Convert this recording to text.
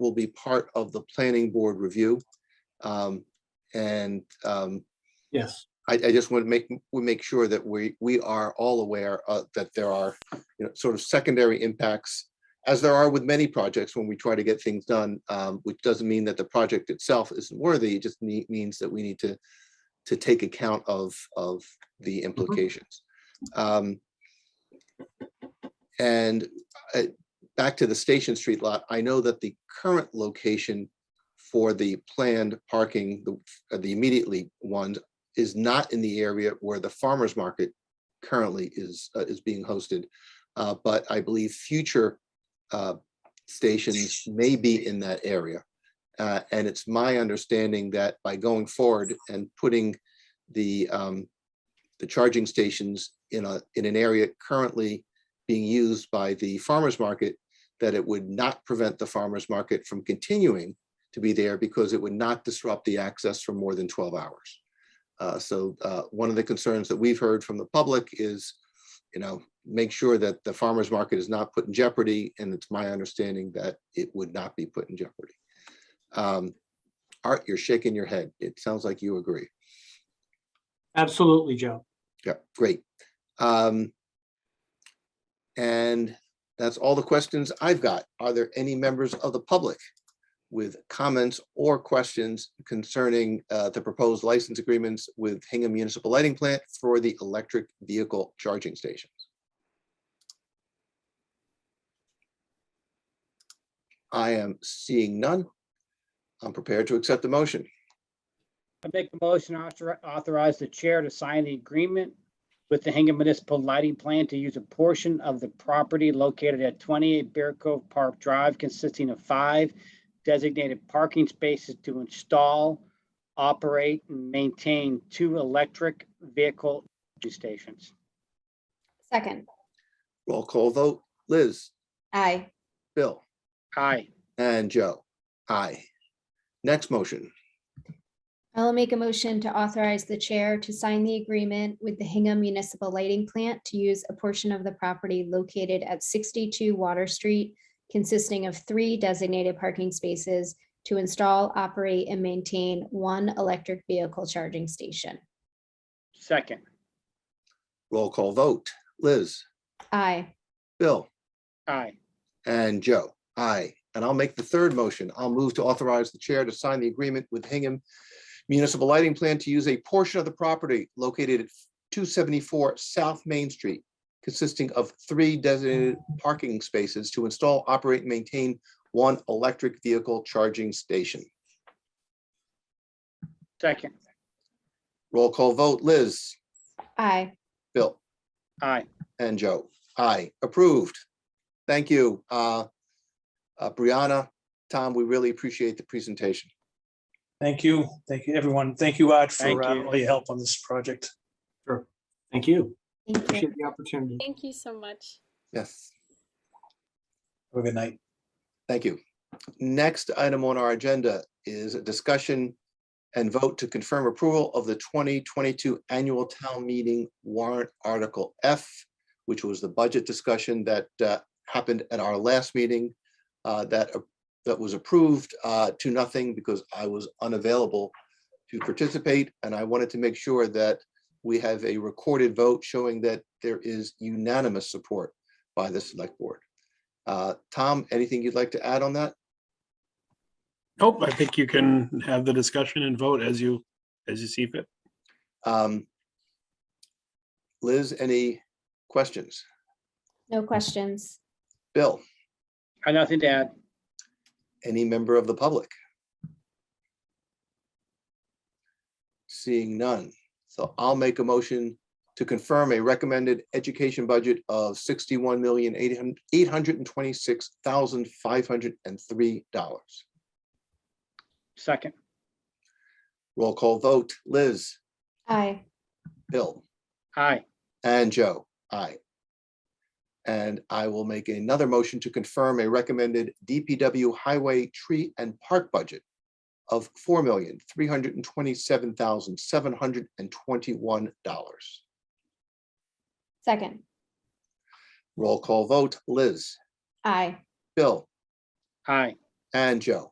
will be part of the planning board review. Um, And um, Yes. I, I just want to make, we make sure that we, we are all aware uh, that there are, you know, sort of secondary impacts, as there are with many projects when we try to get things done, um, which doesn't mean that the project itself isn't worthy, it just nee- means that we need to, to take account of, of the implications. Um, And uh, back to the Station Street lot, I know that the current location for the planned parking, the uh, the immediately ones is not in the area where the farmer's market currently is, uh, is being hosted. Uh, But I believe future uh, stations may be in that area. Uh, And it's my understanding that by going forward and putting the, um, the charging stations in a, in an area currently being used by the farmer's market, that it would not prevent the farmer's market from continuing to be there because it would not disrupt the access for more than 12 hours. Uh, So uh, one of the concerns that we've heard from the public is, you know, make sure that the farmer's market is not put in jeopardy, and it's my understanding that it would not be put in jeopardy. Um, Art, you're shaking your head. It sounds like you agree. Absolutely, Joe. Yeah, great. Um, And that's all the questions I've got. Are there any members of the public with comments or questions concerning uh, the proposed license agreements with Hingham Municipal Lighting Plant for the electric vehicle charging stations? I am seeing none. I'm prepared to accept the motion. I make the motion author- authorize the chair to sign the agreement with the Hingham Municipal Lighting Plan to use a portion of the property located at 28 Bear Cove Park Drive consisting of five designated parking spaces to install, operate, and maintain two electric vehicle charging stations. Second, Roll call vote. Liz, aye. Bill? Aye. And Joe, aye. Next motion, I'll make a motion to authorize the chair to sign the agreement with the Hingham Municipal Lighting Plant to use a portion of the property located at 62 Water Street consisting of three designated parking spaces to install, operate, and maintain one electric vehicle charging station. Second. roll call vote. Liz, Aye. Bill, Aye. and Joe, aye. And I'll make the third motion. I'll move to authorize the chair to sign the agreement with Hingham Municipal Lighting Plan to use a portion of the property located at 274 South Main Street consisting of three designated parking spaces to install, operate, and maintain one electric vehicle charging station. Second. Roll call vote. Liz, Aye. Bill. Aye. And Joe, aye, approved. Thank you. Uh uh, Brianna, Tom, we really appreciate the presentation. Thank you. Thank you, everyone. Thank you, Art, Thank for uh, you. all your help on this project. Thank you. Thank you. Appreciate the opportunity. Thank you so much. Yes, Have a good night. thank you. Next item on our agenda is a discussion and vote to confirm approval of the 2022 Annual Town Meeting Warrant Article F, which was the budget discussion that uh, happened at our last meeting uh, that, that was approved uh, to nothing because I was unavailable to participate, and I wanted to make sure that we have a recorded vote showing that there is unanimous support by the select board. Uh, Tom, anything you'd like to add on that? Nope, I think you can have the discussion and vote as you, as you see fit. Um, Liz, any questions? No questions. Bill, I have nothing to add. any member of the public? Seeing none, so I'll make a motion to confirm a recommended education budget of sixty-one million eight hundred and twenty-six thousand five hundred and three dollars. Second. Roll call vote, Liz, Aye. Bill. Aye. And Joe, aye. And I will make another motion to confirm a recommended DPW highway tree and park budget of four million, three hundred and twenty-seven thousand, seven hundred and twenty-one dollars. Second, Roll call vote, Liz, aye. Bill, Aye. and Joe.